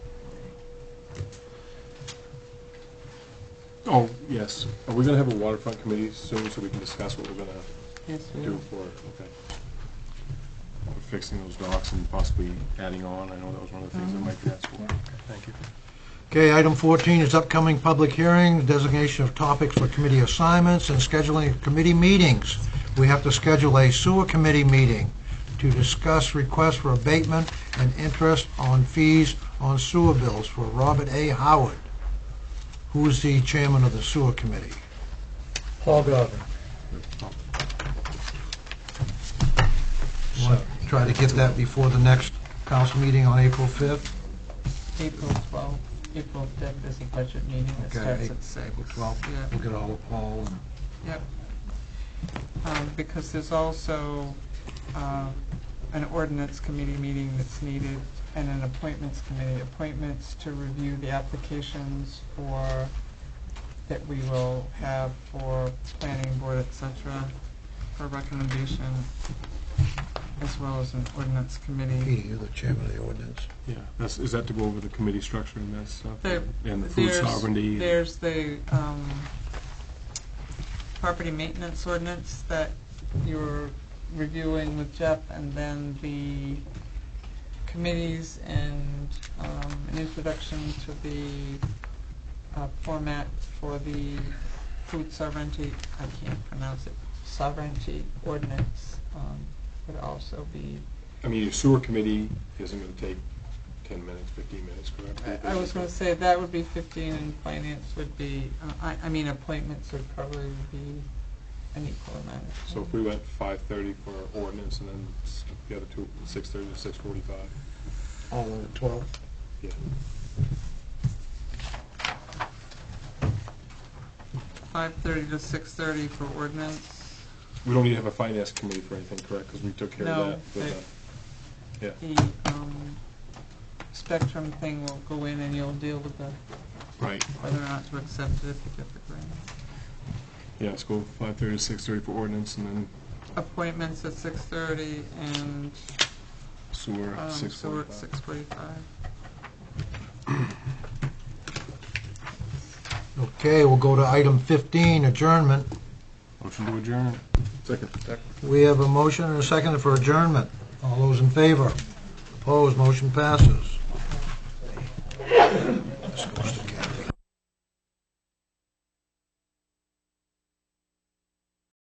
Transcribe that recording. Oh, yes. Are we gonna have a waterfront committee soon so we can discuss what we're gonna Yes, do for, okay. For Fixing those docks and possibly adding on, I know that was one of the things that Mike asked for. Mm-hmm. Thank you. Okay, item 14 is upcoming public hearings, designation of topics for committee assignments, and scheduling of committee meetings. We have to schedule a sewer committee meeting to discuss requests for abatement and interest on fees on sewer bills for Robert A. Howard, who is the chairman of the sewer committee. Paul Godwin. Want to Try to get that before the next council meeting on April 5th? April 12th, April 5th is the budget meeting that Okay, starts at 6. April 12th. Yeah, We'll get all of Paul and um, because there's also uh, an ordinance committee meeting that's needed and an appointments committee. Appointments to review the applications for, that we will have for planning board, et cetera, for recommendation, as well as an ordinance committee. Petey, you're the chairman of the ordinance. Yeah, that's, is that to go over the committee structure and that stuff? There- And the food there's- sovereignty? There's the um, property maintenance ordinance that you were reviewing with Jeff, and then the committees and um, an introduction to the uh, format for the food sovereignty, I can't pronounce it, sovereignty ordinance um, would also be, I mean, your sewer committee isn't gonna take ten minutes, fifteen minutes, correct? I- I was going to say, that would be 15, and finance would be, uh, I I mean, appointments would probably be an equal amount. of So if time. we went five thirty for ordinance and then s- the other two, six thirty to six forty-five? All on the 12th. Yeah. Five thirty to six thirty for ordinance. We don't need to have a finance committee for anything, correct? Because we took care No, of that they- with the, yeah. The um, spectrum thing will go in and you'll deal with the, Right. whether or not to accept it if you get the grant. Yeah, let's go five thirty to six thirty for ordinance and then Appointments at six thirty and sewer um, at six sewer forty-five. at six forty-five. Okay, we'll go to item 15, adjournment. Motion to adjourn. Second. We have a motion and a second for adjournment. All those in favor? Opposed, motion passes.